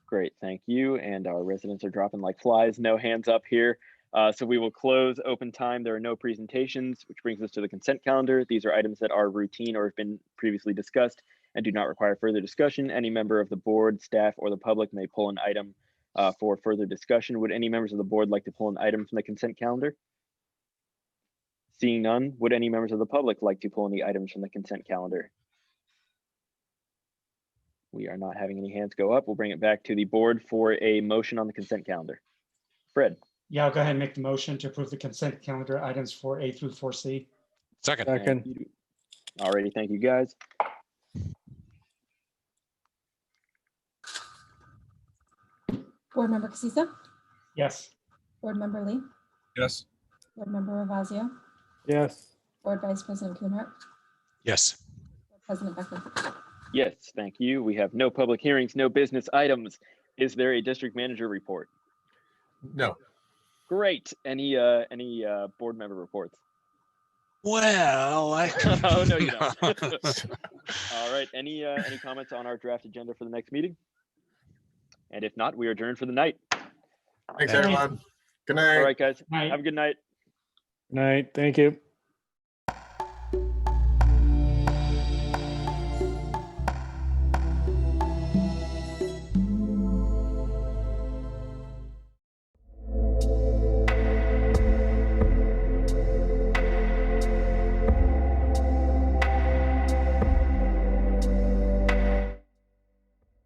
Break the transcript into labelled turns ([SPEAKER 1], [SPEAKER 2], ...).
[SPEAKER 1] Great, thank you. And our residents are dropping like flies, no hands up here. Uh, so we will close open time. There are no presentations, which brings us to the consent calendar. These are items that are routine or have been previously discussed and do not require further discussion. Any member of the board, staff, or the public may pull an item uh, for further discussion. Would any members of the board like to pull an item from the consent calendar? Seeing none, would any members of the public like to pull any items from the consent calendar? We are not having any hands go up. We'll bring it back to the board for a motion on the consent calendar. Fred,
[SPEAKER 2] Yeah, I'll go ahead and make the motion to approve the consent calendar items for A through four C.
[SPEAKER 3] Second,
[SPEAKER 1] Thank
[SPEAKER 4] Second,
[SPEAKER 1] you. Alrighty, thank you guys.
[SPEAKER 5] Board Member Casissa,
[SPEAKER 2] Yes,
[SPEAKER 5] Board Member Lee,
[SPEAKER 3] yes.
[SPEAKER 5] Board Member Ravazio,
[SPEAKER 4] yes,
[SPEAKER 5] Board Vice President Kuhnhart,
[SPEAKER 3] Yes,
[SPEAKER 5] Board President Beckman.
[SPEAKER 1] Yes, thank you. We have no public hearings, no business items. Is there a district manager report?
[SPEAKER 6] No,
[SPEAKER 1] Great. Any, uh, any, uh, board member reports?
[SPEAKER 3] well, I.
[SPEAKER 1] Oh, no, you don't. Alright, any, uh, any comments on our draft agenda for the next meeting? And if not, we are adjourned for the night.
[SPEAKER 6] thanks,
[SPEAKER 3] Okay.
[SPEAKER 6] everyone. Good night.
[SPEAKER 1] Alright, guys,
[SPEAKER 2] Aye.
[SPEAKER 1] have a good night.
[SPEAKER 4] night, thank you.